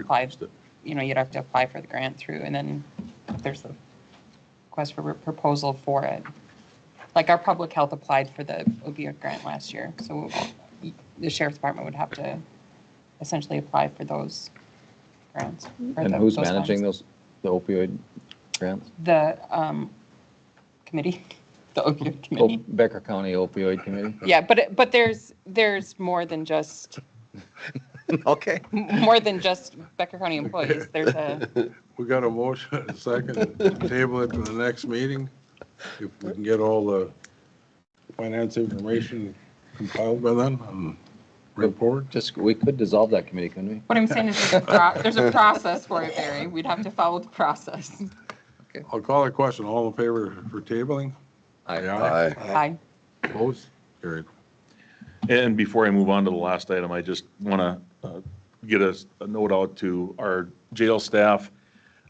apply, Just a- you know, you'd have to apply for the grant through, and then if there's a request for a proposal for it. Like our public health applied for the opioid grant last year, so the sheriff's department would have to essentially apply for those grants. or And the- who's those managing funds. those, the opioid grants? The um, committee, the opioid Oh, committee. Becker County Opioid Committee? Yeah, but, it- but there's, there's more than just, Okay. more than just Becker County employees. There's a, We got a motion, and a second, table it to the next meeting. If we can get all the finance information compiled by then and report. Just, we could dissolve that committee, couldn't we? what I'm saying is there's a, pro- there's a process for it, Barry. We'd have to follow the process. I'll call a question. All in favor for tabling? Aye. Aye. Opposed? Carried. And before I move on to the last item, I just want to get a a note out to our jail staff.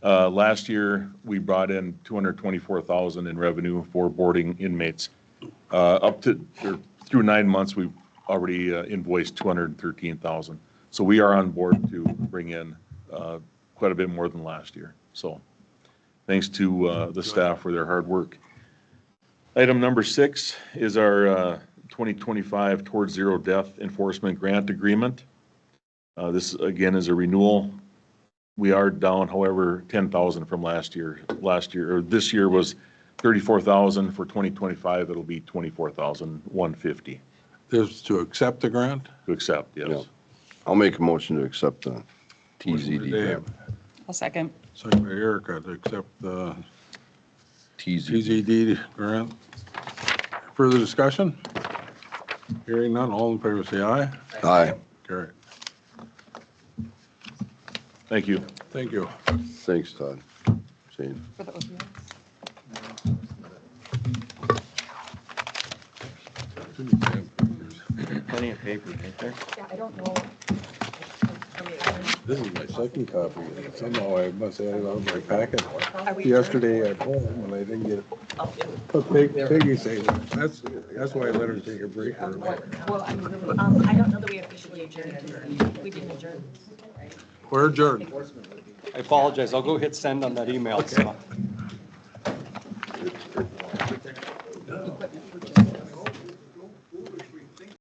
Uh, Last year, we brought in 224,000 in revenue for boarding inmates. Uh, Up to, or through nine months, we've already uh, invoiced 213,000. So we are on board to bring in uh, quite a bit more than last year. So thanks to uh, the staff for their hard work. Item number six is our uh, 2025 Towards Zero Death Enforcement Grant Agreement. Uh, This, again, is a renewal. We are down, however, 10,000 from last year. Last year, or this year was 34,000. For 2025, it'll be 24,150 This is to accept the grant? to accept, yes. I'll make a motion to accept the TZD Dave, grant. I'll second. Second by Erica to accept the TZD. TZD grant. Further discussion? Hearing none, all in favor say aye. Aye. Carried. Thank you. Thank you. Thanks, Todd. Shane. For the opioids. Plenty of paper, ain't there? Yeah, I don't know. This is my second copy. Somehow I must have it out of my packet Are we Oh, yesterday at home and I didn't get it. But Peg- Peggy said, that's, that's why I let her take a break. or- Well, I mean, um, I don't know that we officially adjourned. We didn't adjourn. We're adjourned. I apologize, I'll go hit send on that email, so.